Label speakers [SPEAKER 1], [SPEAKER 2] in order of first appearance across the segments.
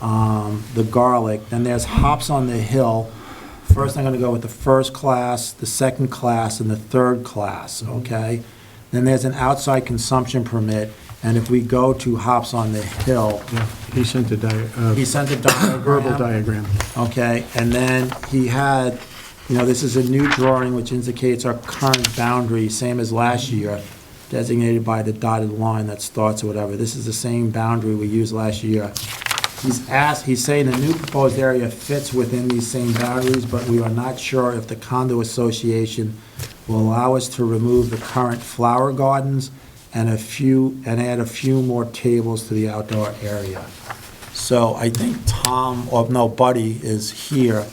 [SPEAKER 1] um, the garlic. Then there's hops on the hill. First, I'm going to go with the first class, the second class, and the third class, okay? Then there's an outside consumption permit, and if we go to hops on the hill,
[SPEAKER 2] Yeah, He sent a di-
[SPEAKER 1] he
[SPEAKER 2] uh,
[SPEAKER 1] sent a diagram.
[SPEAKER 2] verbal diagram.
[SPEAKER 1] Okay, and then he had, you know, this is a new drawing which indicates our current boundary, same as last year, designated by the dotted line that starts or whatever. This is the same boundary we used last year. He's asked, he's saying the new proposed area fits within these same boundaries, but we are not sure if the condo association will allow us to remove the current flower gardens and a few, and add a few more tables to the outdoor area. So I think Tom, or no, Buddy is here,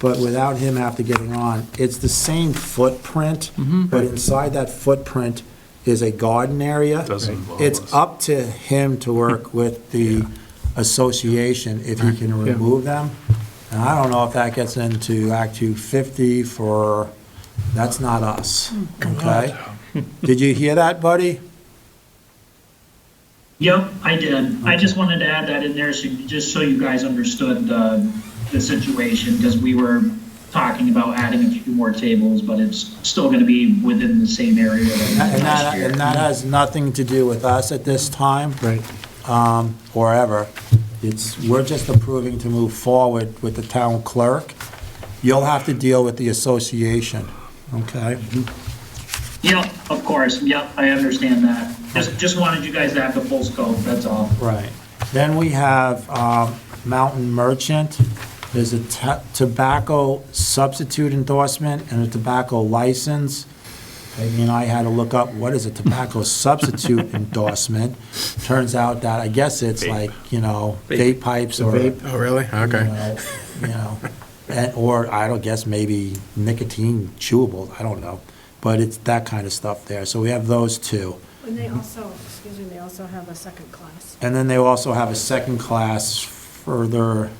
[SPEAKER 1] but without him after getting on, it's the same footprint, but inside that footprint is a garden area.
[SPEAKER 3] Doesn't involve
[SPEAKER 1] It's
[SPEAKER 3] us.
[SPEAKER 1] up to him to work with the association if he can
[SPEAKER 2] Yeah.
[SPEAKER 1] remove them. And I don't know if that gets into Act 250 for, that's not us, okay? Did you hear that, Buddy?
[SPEAKER 4] Yep, I did. I just wanted to add that in there, so, just so you guys understood, uh, the situation, because we were talking about adding a few more tables, but it's still gonna be within the same area that we
[SPEAKER 1] And
[SPEAKER 4] had last
[SPEAKER 1] that,
[SPEAKER 4] year.
[SPEAKER 1] and that has nothing to do with us at this time.
[SPEAKER 2] Right.
[SPEAKER 1] um, or ever. It's, we're just approving to move forward with the town clerk. You'll have to deal with the association, okay?
[SPEAKER 4] Yep, of course, yep, I understand that. Just, just wanted you guys to have the full scope, that's all.
[SPEAKER 1] Right. Then we have um, Mountain Merchant. There's a ta- tobacco substitute endorsement and a tobacco license. Peggy and I had to look up, what is a tobacco substitute endorsement? Turns out that, I guess it's like, you know, vape pipes or
[SPEAKER 2] Oh, really?
[SPEAKER 1] you know, You know, and, or I don't guess maybe nicotine chewables, I don't know. But it's that kind of stuff there. So we have those two.
[SPEAKER 5] And they also, excuse me, they also have a second class.
[SPEAKER 1] And then they also have a second class further,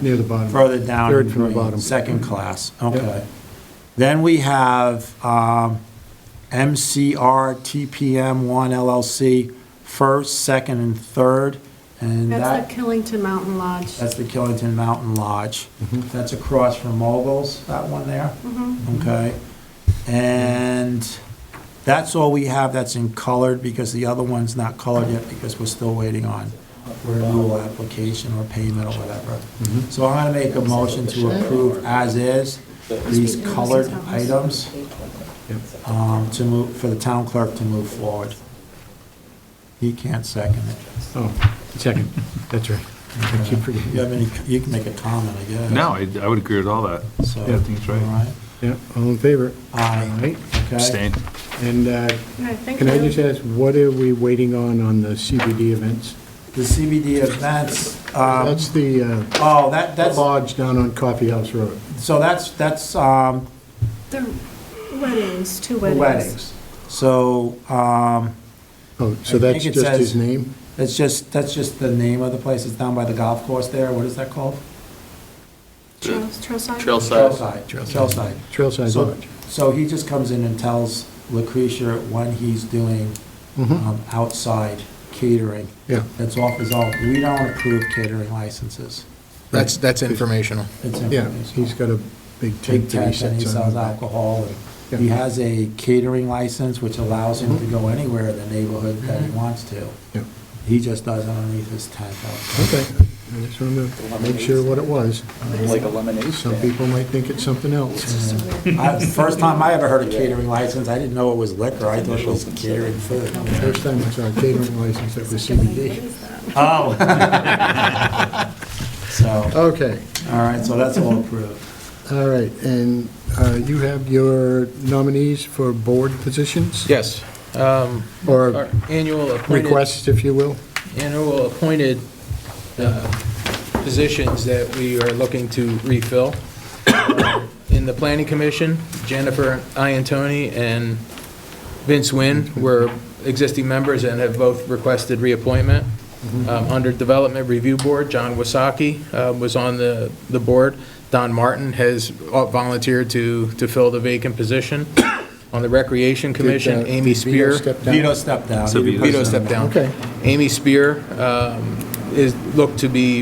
[SPEAKER 2] Near the bottom.
[SPEAKER 1] further down.
[SPEAKER 2] Third from the
[SPEAKER 1] in
[SPEAKER 2] bottom.
[SPEAKER 1] Second class,
[SPEAKER 2] Yep.
[SPEAKER 1] okay. Then we have um, MCR TPM 1 LLC, first, second, and third. And that.
[SPEAKER 5] That's the Killington Mountain Lodge.
[SPEAKER 1] That's the Killington Mountain Lodge.
[SPEAKER 2] Mm-hmm.
[SPEAKER 1] That's across from Mobiles, that one there.
[SPEAKER 5] Mm-hmm.
[SPEAKER 1] Okay. And that's all we have that's in colored because the other one's not colored yet because we're still waiting on renewal application or payment or whatever.
[SPEAKER 2] Mm-hmm.
[SPEAKER 1] So I'm gonna make a motion to approve as is these colored items um, to move, for the town clerk to move forward. He can't second it.
[SPEAKER 2] Oh, second, that's right. I keep forgetting.
[SPEAKER 1] You have any, you can make a comment, I guess.
[SPEAKER 3] No, I, I would agree with all that.
[SPEAKER 1] So,
[SPEAKER 3] Yeah, I think it's right.
[SPEAKER 1] all right.
[SPEAKER 2] Yeah, all in favor?
[SPEAKER 1] Aye.
[SPEAKER 2] Right,
[SPEAKER 1] Okay.
[SPEAKER 3] Abstain.
[SPEAKER 2] and uh,
[SPEAKER 5] Okay, thank
[SPEAKER 2] can I just
[SPEAKER 5] you.
[SPEAKER 2] ask, what are we waiting on on the CBD events?
[SPEAKER 1] The CBD events, um,
[SPEAKER 2] That's the uh,
[SPEAKER 1] oh, that, that's,
[SPEAKER 2] lodge down on Coffee House Road.
[SPEAKER 1] so that's, that's, um,
[SPEAKER 5] The weddings, two
[SPEAKER 1] the
[SPEAKER 5] weddings.
[SPEAKER 1] weddings. So, um,
[SPEAKER 2] Oh, so
[SPEAKER 1] I
[SPEAKER 2] that's
[SPEAKER 1] think it
[SPEAKER 2] just his
[SPEAKER 1] says-
[SPEAKER 2] name?
[SPEAKER 1] that's just, that's just the name of the place. It's down by the golf course there. What is that called?
[SPEAKER 5] Trails, trailside?
[SPEAKER 1] Trailside. Trailside.
[SPEAKER 2] Trailside
[SPEAKER 1] So,
[SPEAKER 2] Lodge.
[SPEAKER 1] so he just comes in and tells Lucretia when he's doing,
[SPEAKER 2] Mm-hmm.
[SPEAKER 1] um, outside catering.
[SPEAKER 2] Yeah.
[SPEAKER 1] That's off his own. We don't approve catering licenses.
[SPEAKER 6] That's, that's informational.
[SPEAKER 1] It's
[SPEAKER 2] Yeah,
[SPEAKER 1] information.
[SPEAKER 2] he's got a big
[SPEAKER 1] big
[SPEAKER 2] tent that
[SPEAKER 1] tent,
[SPEAKER 2] he sets on.
[SPEAKER 1] and he sells alcohol. and He
[SPEAKER 2] Yeah. Mm-hmm.
[SPEAKER 1] has a catering license, which allows him to go anywhere in the neighborhood that he wants to.
[SPEAKER 2] Yeah.
[SPEAKER 1] He just does it underneath his tent outside.
[SPEAKER 2] Okay, I just wanted to make sure what it was.
[SPEAKER 7] Like a lemonade
[SPEAKER 2] Some
[SPEAKER 7] stand.
[SPEAKER 2] people might think it's something else.
[SPEAKER 5] Just a weird-
[SPEAKER 1] I- First time I ever heard a catering license, I didn't know it was liquor, I thought it was catering food.
[SPEAKER 2] First time I saw a catering license that was
[SPEAKER 5] Second, like, what
[SPEAKER 2] CBD.
[SPEAKER 5] is
[SPEAKER 1] Oh.
[SPEAKER 5] that?
[SPEAKER 1] So,
[SPEAKER 2] Okay,
[SPEAKER 1] all right, so that's all approved.
[SPEAKER 2] all right, and uh, you have your nominees for board positions?
[SPEAKER 7] Yes. um,
[SPEAKER 2] Or
[SPEAKER 7] Our annual appointed,
[SPEAKER 2] requests, if you will?
[SPEAKER 7] annual appointed uh, positions that we are looking to refill. Uh, In the planning commission, Jennifer Iantoni and Vince Nguyen were existing members and have both requested reappointment.
[SPEAKER 2] Mm-hmm.
[SPEAKER 7] Um, Under Development Review Board, John Wasaki uh, was on the, the board. Don Martin has volunteered to, to fill the vacant position. On the Recreation Commission,
[SPEAKER 2] Did, uh,
[SPEAKER 7] Amy
[SPEAKER 2] did Vito
[SPEAKER 7] Spear.
[SPEAKER 2] step down?
[SPEAKER 1] Vito stepped down.
[SPEAKER 3] So Vito
[SPEAKER 7] Vito stepped down.
[SPEAKER 2] Okay.
[SPEAKER 7] Amy Spear um, is, look to be